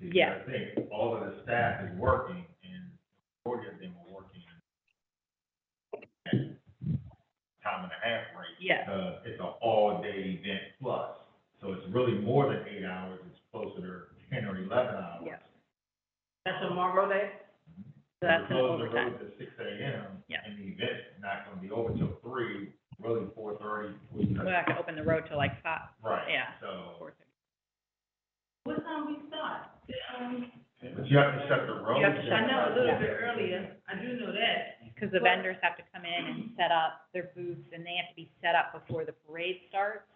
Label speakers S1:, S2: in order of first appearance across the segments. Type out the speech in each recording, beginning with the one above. S1: Yes.
S2: I think all of the staff is working and majority of them are working at time and a half rate.
S1: Yes,
S2: Uh, it's an all-day event plus, so it's really more than eight hours, it's closer to ten or eleven hours.
S1: Yes.
S3: That's tomorrow day?
S1: so that's an
S2: Close the
S1: overtime.
S2: roads at six AM.
S1: Yeah.
S2: And the event's not gonna be over till three, really four thirty.
S1: We'll have to open the road till like five,
S2: Right.
S1: yeah.
S2: So,
S1: four thirty.
S3: What time we start? Um,
S2: but you have to shut the road.
S1: You have to shut
S3: I know a little
S1: Yeah.
S3: bit earlier, I do know that.
S1: Because the vendors have to come in and set up their booths, and they have to be set up before the parade starts.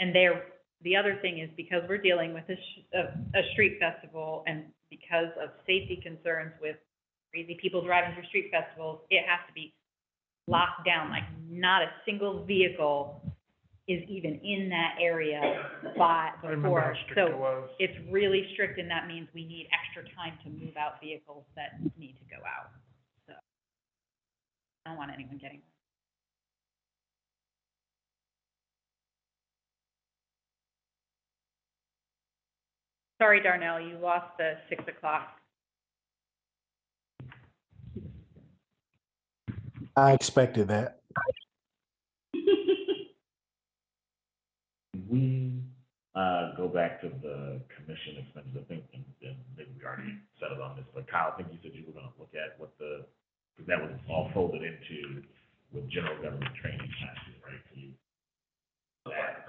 S1: And they're, the other thing is because we're dealing with a, sh- a, a street festival, and because of safety concerns with crazy people driving through street festivals, it has to be locked down, like not a single vehicle is even in that area by,
S4: I remember
S1: before.
S4: how strict it
S1: So
S4: was.
S1: it's really strict, and that means we need extra time to move out vehicles that need to go out, so. I don't want anyone getting. Sorry, Darnell, you lost the six o'clock.
S5: I expected that.
S6: we, uh, go back to the commission expenses, I think, and, and maybe we already settled on this, but Kyle, I think you said you were gonna look at what the, because that was all folded into with general government training classes, right? So you- That,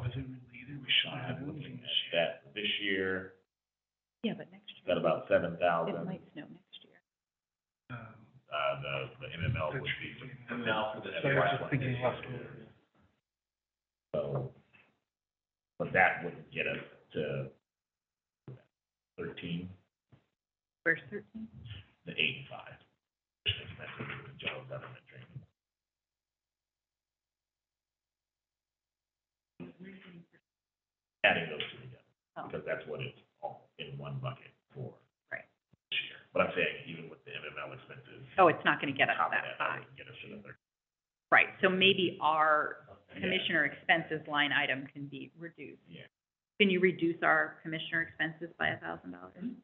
S4: Was it related? We should
S6: uh,
S4: have had it
S6: looking
S4: this year.
S6: at that this year,
S1: Yeah, but next
S6: is that
S1: year,
S6: about seven
S1: it
S6: thousand,
S1: might snow next year.
S4: Um,
S6: uh, the, the MML would be.
S4: the- So I was just thinking last one.
S6: So, but that wouldn't get us to thirteen,
S1: Verse thirteen?
S6: the eight and five. Expenses with general government training. adding those two together,
S1: Oh.
S6: because that's what it's all in one bucket for.
S1: Right.
S6: This year, but I'm saying even with the MML expenses.
S1: Oh, it's not gonna get us
S6: top of
S1: that high.
S6: wouldn't Get us to the third.
S1: Right, so maybe our
S6: Yeah.
S1: commissioner expenses line item can be reduced.
S6: Yeah.
S1: Can you reduce our commissioner expenses by a thousand dollars?
S6: Mm-hmm.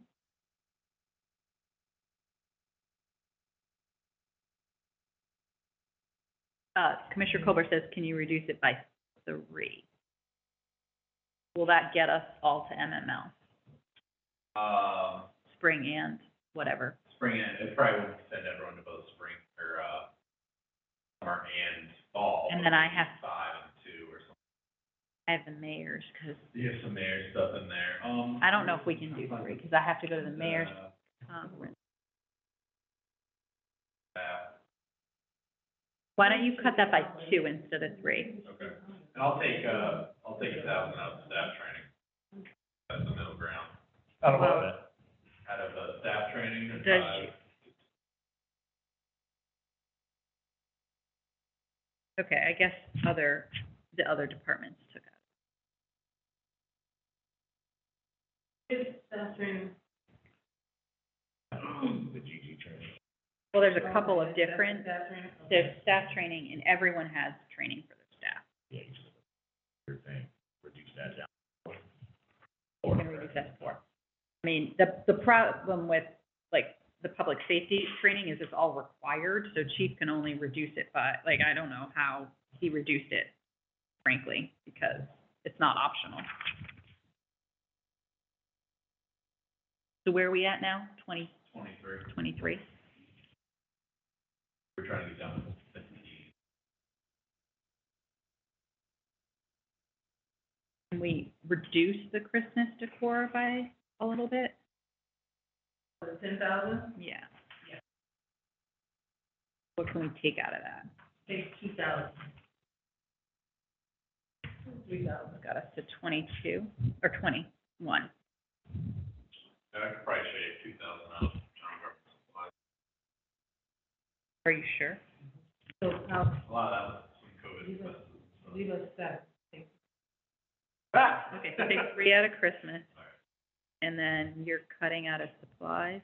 S1: Uh, Commissioner Colbert says, can you reduce it by three? Will that get us all to MML,
S7: Um,
S1: spring and whatever?
S7: spring and, it probably would send everyone to both spring or, uh, summer and fall.
S1: And then I have-
S7: Five and two or something.
S1: I have the mayor's, because
S7: There's some mayor stuff in there. Um.
S1: I don't know if we can do three, because I have to go to the mayor's
S7: uh,
S1: conference.
S7: that.
S1: Why don't you cut that by two instead of three?
S7: Okay. And I'll take, uh, I'll take a thousand out of staff training. That's the middle ground.
S4: I don't know.
S6: But
S7: Out of, uh, staff training uh, and
S1: Does
S7: five.
S1: Okay, I guess other, the other departments took up.
S3: It's, that's in,
S6: The GG training,
S1: Well, there's a couple of different,
S3: that's in.
S1: there's staff training and everyone has training for their staff.
S6: yeah, you just, your thing, reduce that down.
S1: We're gonna reduce that to four. I mean, the, the problem with, like, the public safety training is it's all required, so chief can only reduce it by, like, I don't know how he reduced it, frankly, because it's not optional. So where are we at now? Twenty,
S7: Twenty-three.
S1: twenty-three?
S7: We're trying to get down to fifteen.
S1: Can we reduce the Christmas decor by a little bit?
S3: Ten thousand,
S1: Yeah. What can we take out of that?
S3: take two thousand. Three thousand.
S1: It's Got us to twenty-two, or twenty-one.
S7: I could probably shave two thousand out of general government supplies.
S1: Are you sure?
S3: So how,
S7: A lot of that was some COVID
S3: Leave it.
S7: expenses. so-
S3: leave us that.
S7: Ah!
S1: Okay, so take three out of Christmas.
S7: All right.
S1: And then you're cutting out of supplies.